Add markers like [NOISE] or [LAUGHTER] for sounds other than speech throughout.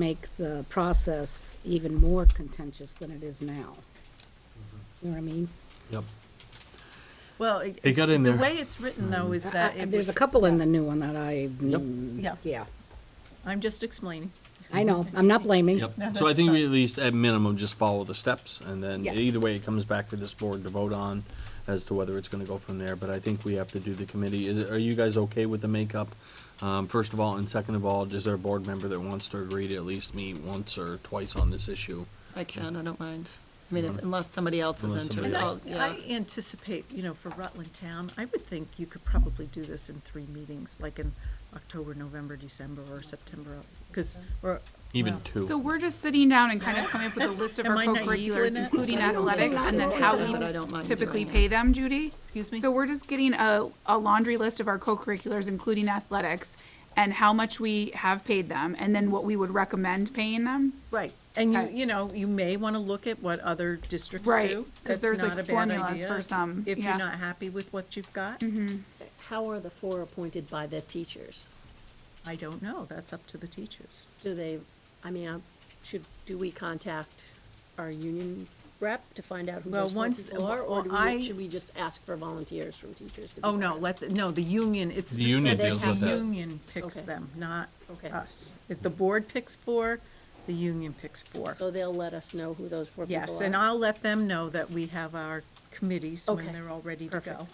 make the process even more contentious than it is now. You know what I mean? Yep. Well, It got in there. The way it's written though Mm. is I- Uh, that I- it There's a would- couple in the new one that I, Yep. mm, Yeah. yeah, I'm just explaining. I know, I'm not blaming. Yep. No, So I that's think we fine. at least, at minimum, just follow the steps, and then Yeah. either way, it comes back to this board to vote on as to whether it's gonna go from there, but I think we have to do the committee. Is- Are you guys okay with the makeup? Um, first of all, and second of all, is there a board member that wants to agree to at least meet once or twice on this issue? I uh, can, I don't mind. I mean, if- unless somebody else is Mm-hmm. Unless somebody interested, And I I'll- else. yeah. I anticipate, you know, for Rutland Town, I would think you could probably do this in three meetings, like in October, November, December, or September, because, or. Even well, two? So we're just sitting down and kind of coming up with a list of Am our I naive co-curriculars, in it? including I don't athletics, think and then so, how but I don't we mind typically doing it. pay them, Judy? Excuse me? So we're just getting a, a laundry list of our co-curriculars, including athletics, and how much we have paid them, and then what we would recommend paying them? Right, and you, Okay. you know, you may want to look at what other districts do. Right, 'cause That's there's, like, not a bad formulas idea for some, If you're yeah. Mm-hmm. not happy with what you've got, How are the four appointed by the teachers? I don't know, that's up to the teachers. Do they, I mean, I- should, do we contact our union rep to find out who Well, those four once- people are? Or do well, I- we, should we just ask for volunteers from teachers to be? Oh, no, part of it? let, the- no, the union, it's The union specific. deals with The that. union picks Okay. them, not Okay. us. If the board picks four, the union picks four. So they'll let us know who those four people are? Yes, and I'll let them know that we have our committees when Okay. they're all ready to Perfect. go.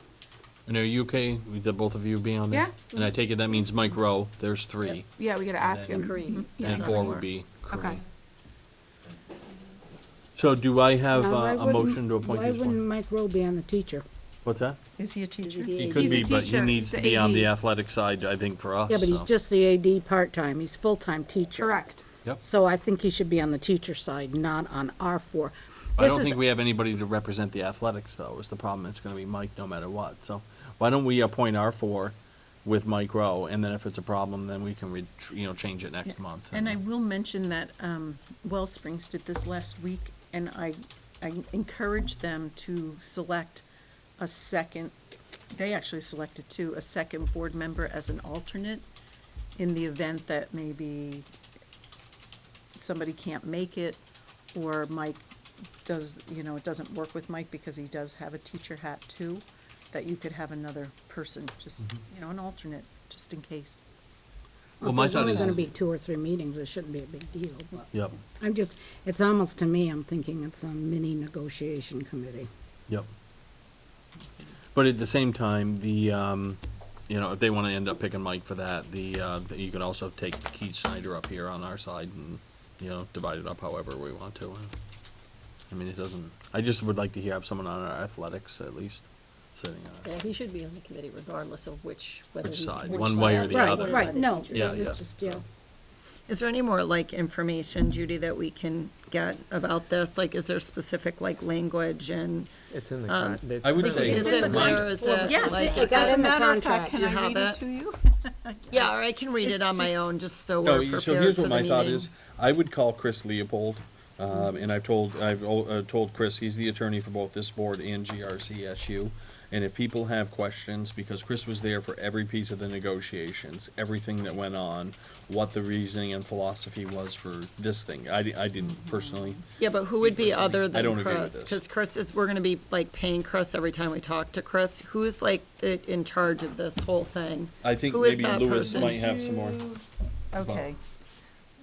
And are you okay with the both of you being on there? Yeah. And I take it that means Mike Rowe, there's three, Yeah, we gotta ask then- him. Kareem. Yeah. Mm-hmm. and four would be Okay. Corinne. So do I have Now, why uh, a wouldn't- motion to appoint Why these wouldn't one? Mike Rowe be on the teacher? What's that? Is he a teacher? the He AD. could He's a be, but he teacher. needs He's to the be on AD. the athletic side, I think, for us. Yeah, but he's so- just the AD part-time, he's full-time teacher. Correct. Yep. So I think he should be on the teacher side, not on our four. I This don't is- think we have anybody to represent the athletics, though, is the problem. It's gonna be Mike no matter what. So why don't we appoint our four with Mike Rowe, and then if it's a problem, then we can, re- tr- you know, change it next month. And I will mention that um, Wellsprings did this last week, and I, I encouraged them to select a second, they actually selected two, a second board member as an alternate in the event that maybe somebody can't make it, or Mike does, you know, it doesn't work with Mike because he does have a teacher hat too, that you could have another person, just, you know, an alternate, just in case. Well, my There's thought only is, gonna be two or three meetings, it shouldn't be a big deal, but yep, I'm just, it's almost to me, I'm thinking it's a mini negotiation committee. yep. But at the same time, the, um, you know, if they wanna end up picking Mike for that, the, uh, you could also take Keith Snyder up here on our side and, you know, divide it up however we want to. I mean, it doesn't, I just would like to hear have someone on our athletics at least, sitting on it. Yeah, he should be on the committee regardless of which, whether Which he's. side, which one way or side, the one other. way or Right, right, the no. teacher. Yeah, it's yeah. just, yeah. Is there any more like information, Judy, that we can get about this? Like, is there specific like language and? It's in the Um, con. it's I would in say- the- Is in the it mind- Or is it? Yes, like, it is got it- in the contract. You have it? you? [LAUGHS] Yeah, or I can read it It's on my just- own, just so No, we're you- prepared so here's for what the my thought meeting. is, I would call Chris Leopold, um, and I've told, I've, al- uh, told Chris, he's the attorney for both this board and GRCSU. And if people have questions, because Chris was there for every piece of the negotiations, everything that went on, what the reasoning and philosophy was for this thing, I, di- I Mm-hmm. didn't personally. Yeah, but who would be Because I other mean, I don't than agree with Chris? this. Because Chris is, we're gonna be like paying Chris every time we talk to Chris. Who's like the- in charge of this whole thing? I think Who is maybe that Lewis person? might have some more. Okay.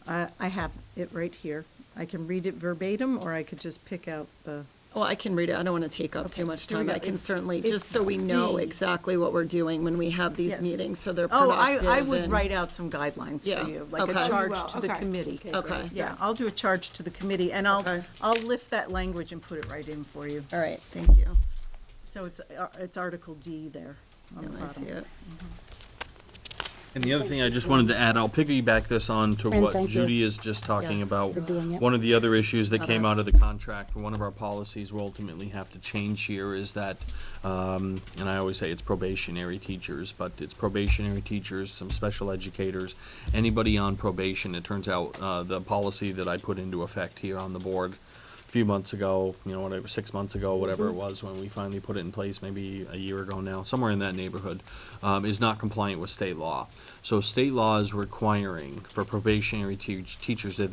I, I have it right here. I can read it verbatim, or I could just pick out the, Well, Oh, I can read it. I don't want to take up Okay, too much here we time. I go. can It's- certainly, it's just so we know D. exactly what we're doing when we have these Yes. meetings, so they're oh, productive. I, I would and- write out some guidelines Yeah, for you, like a okay. charge Well, to the okay. committee. Okay. Yeah, I'll do a charge to the committee, and I'll, Okay. I'll lift that language and put it right in for you. All right, thank you. So it's, uh, it's Article D there on the Now I see bottom. it. And the other thing I just wanted to add, I'll piggyback this on to And what thank you. Judy is just talking Yes, about. for doing it. One of the other issues that came out of the contract, one of our policies we'll ultimately have to change here is that, um, and I always say it's probationary teachers, but it's probationary teachers, some special educators, anybody on probation. It turns out, uh, the policy that I put into effect here on the board a few months ago, you know, whatever, six months ago, whatever Mm-hmm. it was, when we finally put it in place, maybe a year ago now, somewhere in that neighborhood, um, is not compliant with state law. So state law is requiring for probationary teach, teachers that